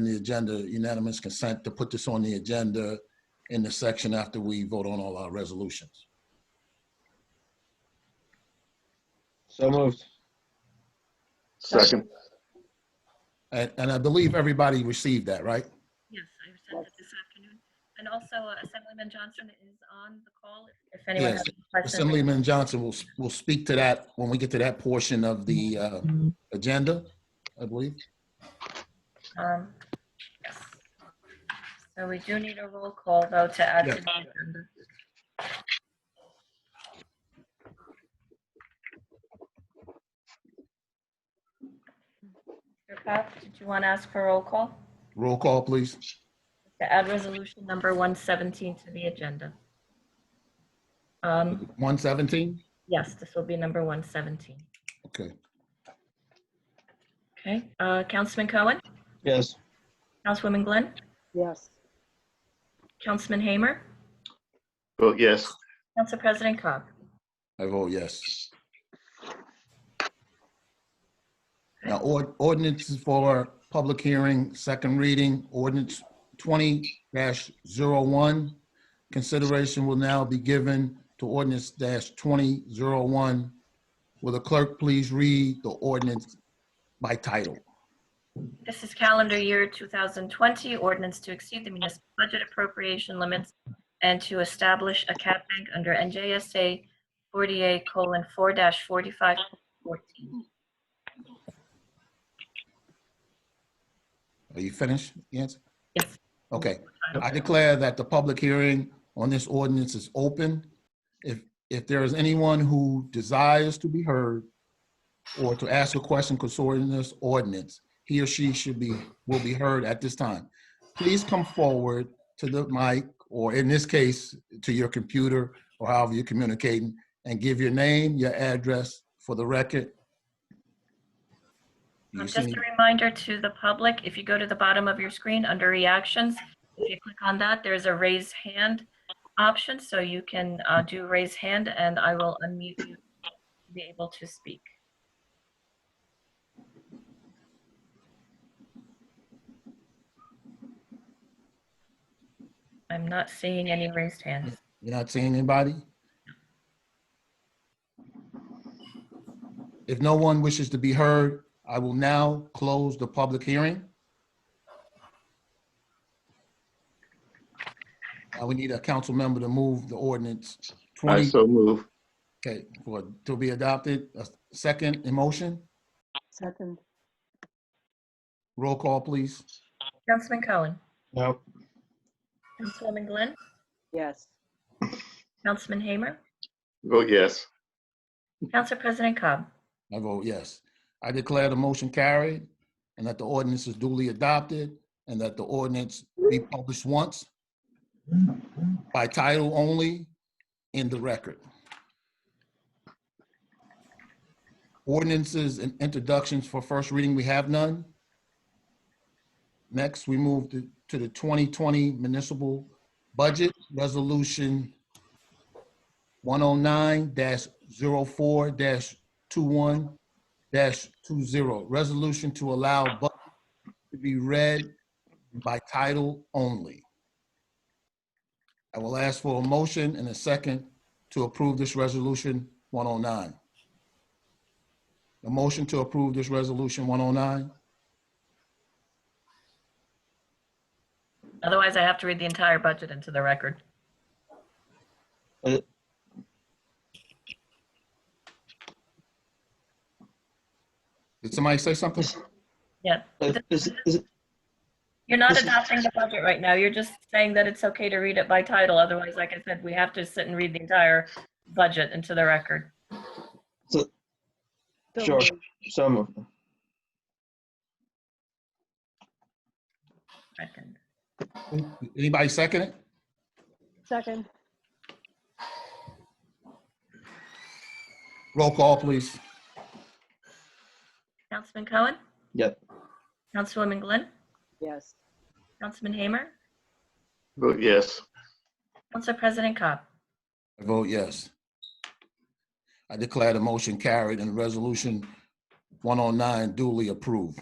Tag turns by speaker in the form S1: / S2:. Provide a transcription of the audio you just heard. S1: on the agenda, unanimous consent to put this on the agenda in the section after we vote on all our resolutions.
S2: So moved.
S3: Second,
S1: And, and I believe everybody received that, right?
S4: Yes, I sent it this afternoon. And also uh, Assemblyman Johnson is on the call if- if anyone
S1: Yes,
S4: has any questions.
S1: Assemblyman Johnson will, will speak to that when we get to that portion of the uh, agenda, I believe.
S4: Um, yes. So we do need a roll call though to add to
S1: Yes.
S4: the agenda. Mr. Pop, did you want to ask for roll call
S1: Roll call, please.
S4: to add resolution number 117 to the agenda? Um,
S1: 117?
S4: Yes, this will be number 117.
S1: Okay.
S4: Okay, uh, Councilman Cohen,
S2: Yes.
S4: Councilwoman Glenn,
S5: Yes.
S4: Councilman Hamer,
S3: vote yes.
S4: Council President Cobb.
S1: I vote yes. Now, ord- ordinances for public hearing, second reading, ordinance twenty dash Consideration will now be given to ordinance dash twenty zero one. Will the clerk please read the ordinance by title?
S4: This is calendar year 2020, ordinance to exceed the municipal budget appropriation limits and to establish a cap bank under NJSA 48:4-4514.
S1: Are you finished, Yancy?
S4: Yes.
S1: Okay, I declare that the public hearing on this ordinance is open. If, if there is anyone who desires to be heard or to ask a question concerning this ordinance, he or she should be, will be heard at this time. Please come forward to the mic, or in this case, to your computer, or however you're communicating, and give your name, your address for the record. You
S4: Um, Just
S1: see-
S4: a reminder to the public, if you go to the bottom of your screen under reactions, if you click on that, there's a raise hand option, so you can uh, do raise hand and I will unmute you to be able to speak. I'm not seeing any raised hands.
S1: You're not seeing anybody? If no one wishes to be heard, I will now close the public hearing. Now we need a council member to move the ordinance 20,
S3: I so move.
S1: okay, for, to be adopted. A second emotion,
S5: Second.
S1: roll call, please.
S4: Councilman Cohen,
S2: No.
S4: Councilwoman Glenn,
S5: Yes.
S4: Councilman Hamer,
S3: Vote yes.
S4: Council President Cobb.
S1: I vote yes. I declare the motion carried and that the ordinance is duly adopted and that the ordinance be published once by title only in the record. Ordinances and introductions for first reading, we have none. Next, we move to, to the 2020 municipal budget resolution 109-04- 21-20, resolution to allow budget to be read by title only. I will ask for a motion and a second to approve this resolution 109. A motion to approve this resolution 109?
S4: Otherwise, I have to read the entire budget into the record.
S1: Did somebody say something?
S4: Yeah.
S2: Uh, Is, is,
S4: You're not
S2: This is-
S4: adopting the budget right now. You're just saying that it's okay to read it by title. Otherwise, like I said, we have to sit and read the entire budget into the record.
S5: So
S2: Sure.
S5: moved.
S2: so moved.
S4: Second.
S1: Anybody second it?
S5: Second.
S1: Roll call, please.
S4: Councilman Cohen?
S2: Yep.
S4: Councilwoman Glenn?
S5: Yes.
S4: Councilman Hamer?
S3: Vote yes.
S4: Council President Cobb?
S1: I vote yes. I declare the motion carried and resolution 109 duly approved.